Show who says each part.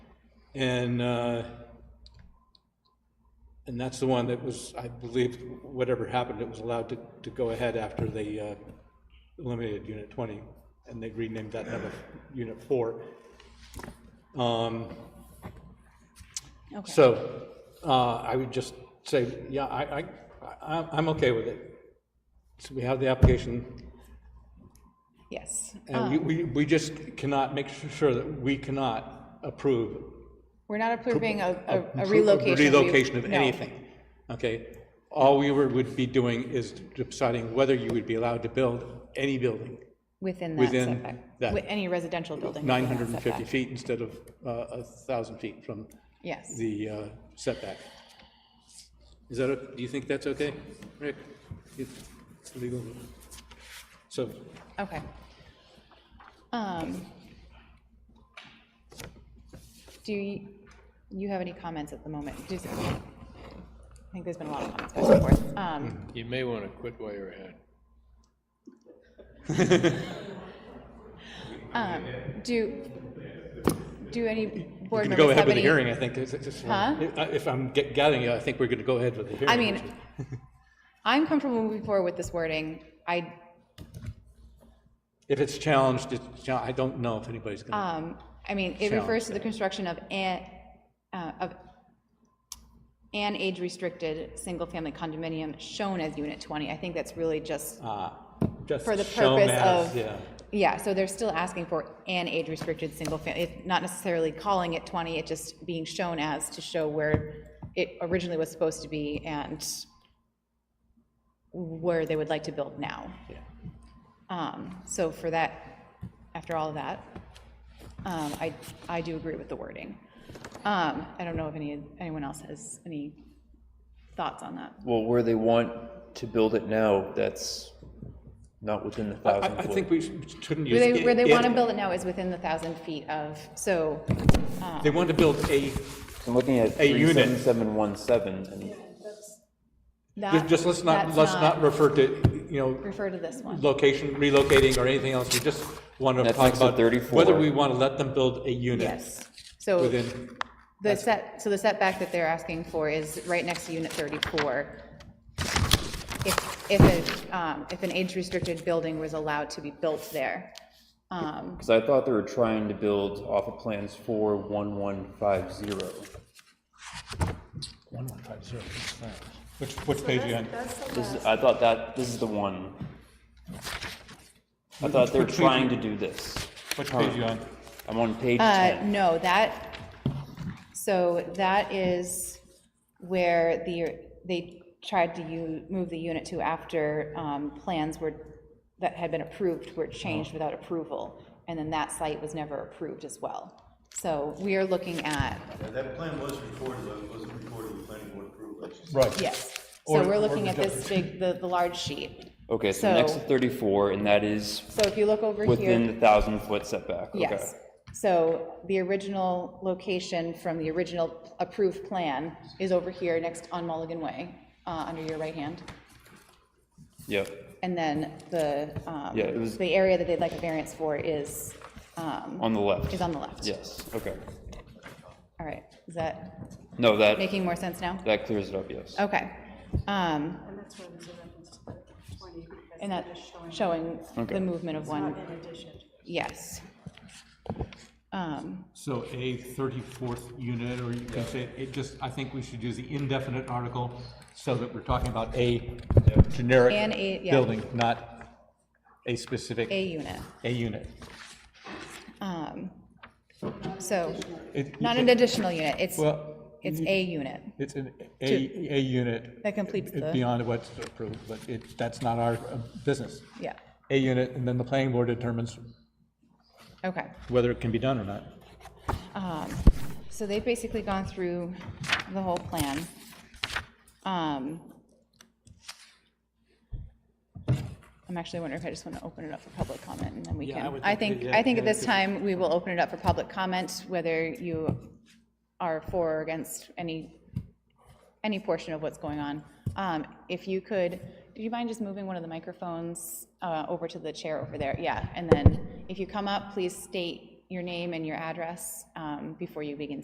Speaker 1: And, uh, and that's the one that was, I believe, whatever happened, it was allowed to, to go ahead after they uh, eliminated Unit 20, and they renamed that number Unit 4. Um,
Speaker 2: Okay.
Speaker 1: So uh, I would just say, yeah, I, I, I- I'm okay with it. So we have the application,
Speaker 2: Yes.
Speaker 1: and we- we, we just cannot make sure that we cannot approve
Speaker 2: We're not approving a- a a
Speaker 1: Oh, Appro-
Speaker 2: relocation. We-
Speaker 1: relocation of
Speaker 2: no.
Speaker 1: anything, okay? All we were- would be doing is deciding whether you would be allowed to build any building,
Speaker 2: Within that
Speaker 1: within
Speaker 2: setback.
Speaker 1: that.
Speaker 2: With any residential building. within that
Speaker 1: 950
Speaker 2: setback.
Speaker 1: feet instead of uh, 1,000 feet from
Speaker 2: Yes.
Speaker 1: the uh, setback. Is that, o- do you think that's okay, Rick? It's legal. So,
Speaker 2: Okay. Um, Do you, you have any comments at the moment? Just- I think there's been a lot of comments back and forth. Um,
Speaker 3: You may want to quit while you're ahead.
Speaker 2: um, Do, do any
Speaker 1: we're
Speaker 2: board
Speaker 1: going to go ahead
Speaker 2: members have
Speaker 1: with the
Speaker 2: any?
Speaker 1: hearing, I think. It's- it's- it's-
Speaker 2: Huh?
Speaker 1: If I'm get- gathering, you, I think we're going to go ahead with the hearing.
Speaker 2: I mean, I'm comfortable moving forward with this wording. I,
Speaker 1: If it's challenged, it's, chal- I don't know if anybody's going to.
Speaker 2: um, I mean, it refers to the construction of an, uh, of an age-restricted, single-family condominium shown as Unit 20. I think that's really just
Speaker 1: Ah, just
Speaker 2: Uh, for the
Speaker 1: shown
Speaker 2: purpose
Speaker 1: as,
Speaker 2: of,
Speaker 1: yeah.
Speaker 2: yeah, so they're still asking for an age-restricted single family, it's not necessarily calling it 20, it just being shown as to show where it originally was supposed to be and where they would like to build now. Um, So for that, after all of that, um, I, I do agree with the wording. Um, I don't know if any, anyone else has any thoughts on that.
Speaker 4: Well, where they want to build it now, that's not within the
Speaker 1: I,
Speaker 4: thousand
Speaker 1: I
Speaker 4: foot.
Speaker 1: think we should- shouldn't use.
Speaker 2: Where they,
Speaker 1: it-
Speaker 2: where they
Speaker 1: it.
Speaker 2: want to build it now is within the 1,000 feet of, so
Speaker 1: They want to build a,
Speaker 4: I'm looking at
Speaker 1: A
Speaker 4: three
Speaker 1: unit.
Speaker 4: seven seven one seven, and
Speaker 2: that.
Speaker 1: just let's not,
Speaker 2: Ah, that's
Speaker 1: let's not refer to, you know,
Speaker 2: Refer to this one.
Speaker 1: location, relocating or anything else. We just want to
Speaker 4: That's
Speaker 1: talk
Speaker 4: next to
Speaker 1: about
Speaker 4: 34.
Speaker 1: whether we want to let them build a unit
Speaker 2: Yes. So
Speaker 1: within,
Speaker 2: the set, so the setback that they're asking for is right next to unit 34. If, if, a, um, if an age-restricted building was allowed to be built there. Um,
Speaker 4: because I thought they were trying to build off of plans for one one five zero.
Speaker 1: which, which page you on?
Speaker 4: This is, I thought that, this is the one. I thought they were
Speaker 1: Which- which page
Speaker 4: trying to
Speaker 1: you-
Speaker 4: do this.
Speaker 1: Which page you on?
Speaker 4: I'm on page
Speaker 2: Uh,
Speaker 4: ten.
Speaker 2: no, that, so that is where the, they tried to u- move the unit to after um, plans were, that had been approved were
Speaker 4: Oh.
Speaker 2: changed without approval, and then that site was never approved as well. So we are looking at,
Speaker 5: Yeah, That plan was recorded, but it wasn't recorded with planning board approval.
Speaker 1: Right.
Speaker 2: yes, so we're looking at this big, the, the large sheet.
Speaker 4: Okay, so next to
Speaker 2: so-
Speaker 4: thirty-four, and that is
Speaker 2: So if you look over here.
Speaker 4: within the thousand foot setback, okay.
Speaker 2: Yes. So the original location from the original approved plan is over here next on Mulligan Way, uh, under your right hand.
Speaker 4: Yep.
Speaker 2: And then the, um,
Speaker 4: Yeah, it was-
Speaker 2: the area that they'd like a variance for is, um,
Speaker 4: On the left?
Speaker 2: is on the left.
Speaker 4: Yes, okay.
Speaker 2: All right. Is that
Speaker 4: No, that,
Speaker 2: making more sense now?
Speaker 4: that clears it up, yes.
Speaker 2: Okay. Um,
Speaker 6: And that's why there's a reference to the 20, because
Speaker 2: and
Speaker 6: that
Speaker 2: that's
Speaker 6: is showing
Speaker 2: showing
Speaker 4: Okay.
Speaker 2: the movement of one.
Speaker 6: in addition.
Speaker 2: Yes. Um,
Speaker 1: So a 34th unit, or you can say, it just, I think we should use the indefinite article so that we're talking about a generic
Speaker 2: And a- yeah.
Speaker 1: building, not a specific,
Speaker 2: A unit.
Speaker 1: a unit.
Speaker 2: Um, so
Speaker 1: It- you
Speaker 2: not
Speaker 1: can-
Speaker 2: an additional unit. It's,
Speaker 1: Well,
Speaker 2: it's a unit.
Speaker 1: It's an A, A unit.
Speaker 2: That completes the-
Speaker 1: Beyond what's approved, but it, that's not our uh, business.
Speaker 2: Yeah,
Speaker 1: A unit, and then the planning board determines
Speaker 2: okay.
Speaker 1: whether it can be done or not.
Speaker 2: Um, So they've basically gone through the whole plan. Um, I'm actually wondering if I just want to open it up for public comment, and then we
Speaker 1: Yeah, I
Speaker 2: can,
Speaker 1: would
Speaker 2: I
Speaker 1: think-
Speaker 2: think,
Speaker 1: yeah,
Speaker 2: I think at
Speaker 1: yeah,
Speaker 2: this time, we will open it up for public comment, whether you are for or against any, any portion of what's going on. Um, If you could, do you mind just moving one of the microphones uh, over to the chair over there? Yeah, and then if you come up, please state your name and your address um, before you begin